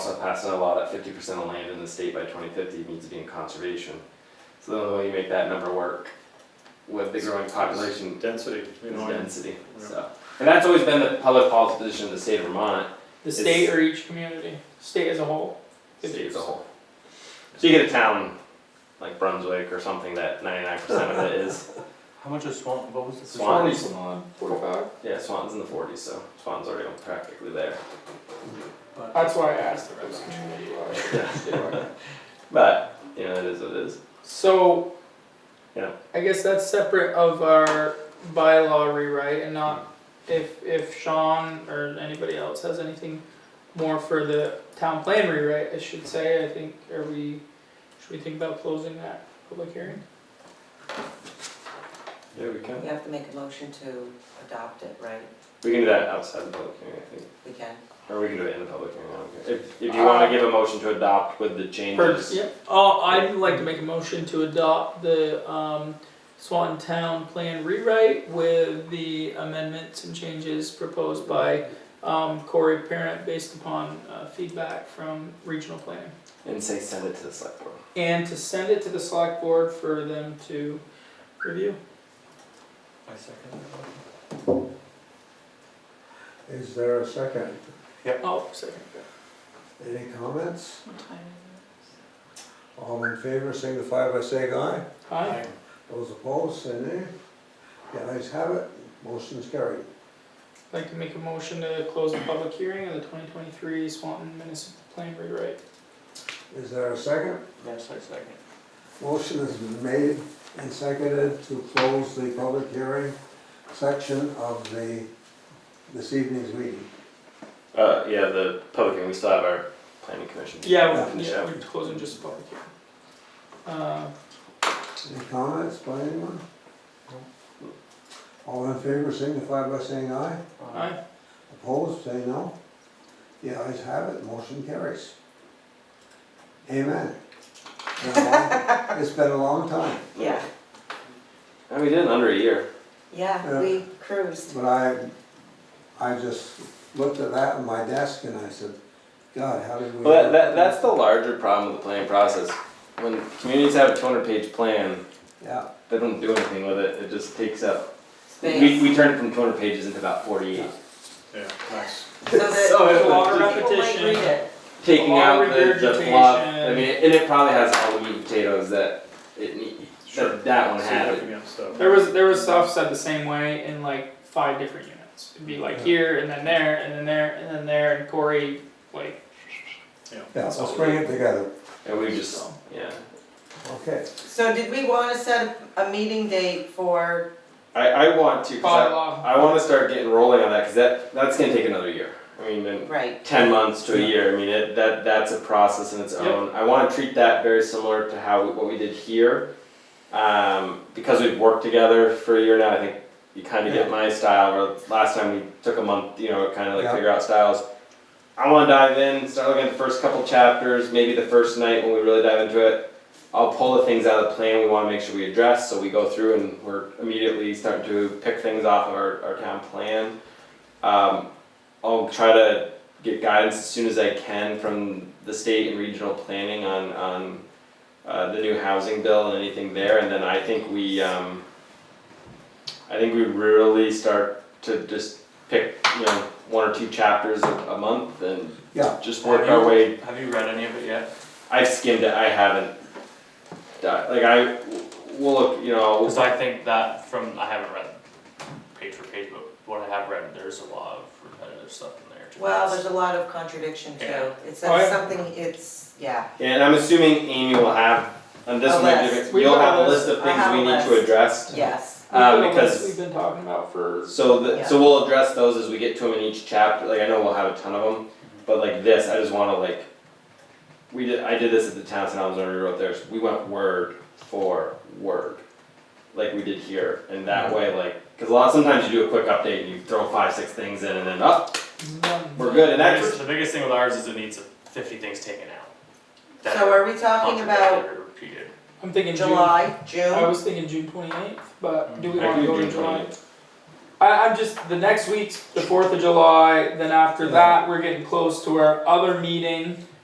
passing a law that fifty percent of land in the state by twenty fifty needs to be in conservation. So the only way you make that number work with the growing population Density, you is know, and- density, yeah. so. And that's always been the public policy position of the state of Vermont, The It's- state or each community, state as a whole? state as a whole. So you get a town like Brunswick or something that ninety-nine percent of it is, How much is Swan, what was the? Swan. Forty-five? yeah, Swan's in the forties, so Swan's already practically there. But That's why I asked. But, you know, it is what it is. So. Yeah. I guess that's separate of our bylaw rewrite and not, Hmm. if, if Sean or anybody else has anything more for the town plan rewrite, I should say, I think, are we, should we think about closing that public hearing? Yeah, we can. You have to make a motion to adopt it, right? We can do that outside the public hearing, I think, We can. or we can do it in the public hearing, I don't care. If, if you wanna give a motion to adopt with the changes. Yep, oh, I'd like to make a motion to adopt the, um, Swanton Town Plan rewrite with the amendments and changes proposed by, um, Corey Parent based upon, uh, feedback from regional planning. And say send it to the select board. And to send it to the select board for them to review. I second that. Is there a second? Oh, sorry. Any comments? All in favor, signify by saying aye. Hi, Those opposed, say nay. The ayes have it, motion's carried. I'd like to make a motion to close the public hearing of the twenty twenty-three Swanton Municipal Plan rewrite. Is there a second? Yes, I second. Motion has been made and seconded to close the public hearing section of the, this evening's meeting. Uh, yeah, the public hearing, we still have our planning commission. Yeah, we're, Yeah. yeah, we're closing just the public hearing. Uh, Any comments by anyone? All in favor, signify by saying aye. aye. Opposed, say no. The ayes have it, motion carries. Amen. Been a long- It's been a long time, Yeah, And we did in under a year. yeah, we cruised. but I, I just looked at that on my desk and I said, God, how did we? Well, that, that, that's the larger problem with the planning process. When communities have a two hundred page plan, Yeah, they don't do anything with it, it just takes up. We, Space. we turned it from two hundred pages into about forty-eight. yeah, nice. So that So it's a lot of people might repetition. read it. Taking A lot out of the, the fluff, I regurgitation. mean, and it probably has all the meat and potatoes that it need, Sure. that, that one had it. Significant stuff. There was there was stuff said the same way in like five different units. It'd be like here and then there and then there and then there and Corey like yeah, let's bring it together, And we just, yeah. okay. So did we wanna set a meeting date for, I, I want to, 'cause I- bylaw. I want to start getting rolling on that because that that's gonna take another year. I mean, in right, ten months to a year. I mean, it, that that's a process in its Yep. own. I want to treat that very similar to how what we did here, um, because we've worked together for a year now. I think you kind of get my style. Where last time we took a month, you know, kind of like Yeah. figure out styles. I want to dive in, start looking at the first couple chapters, maybe the first night when we really dive into it. I'll pull the things out of the plan we want to make sure we address, so we go through and we're immediately starting to pick things off of our, our town plan. Um, I'll try to get guidance as soon as I can from the state and regional planning on, on uh, the new housing bill and anything there, and then I think we, um, I think we really start to just pick, you know, one or two chapters a, a month and Yeah. just work our way Have you read any of it yet? I've skimmed it. I haven't. Di- like I, we'll look. You know, Cause I think that from, I haven't read page for page, but what I have read, there's a lot of repetitive stuff in there. to well, be honest. there's a lot of contradiction too. Yeah. It Oh, says yeah. something, it's, yeah, and I'm assuming Amy will have on this A one. list. different- We've You'll got have a a list of I things have we a need to list. address. yes, Uh, We know the ones because- we've been talking about for So the, Yeah. so we'll address those as we get to them in each chapter. Like I know we'll have a ton of them, but like this, I just want to like. We did. I did this at the town and I was already wrote theirs. We went word for word, like we did here, and that way like because a lot sometimes you do a quick update and you throw five six things in and then up none. we're good and The that's biggest, the biggest thing with ours is it needs fifty things taken out. that so are we talking contradicted about or Repeated. I'm thinking July. July, June? I was thinking June twenty eighth, but do we Mm-hmm. I want can to do go to June July? I I'm just Mm-hmm. the next week's the fourth of July. Then after that, we're getting close to our other meeting.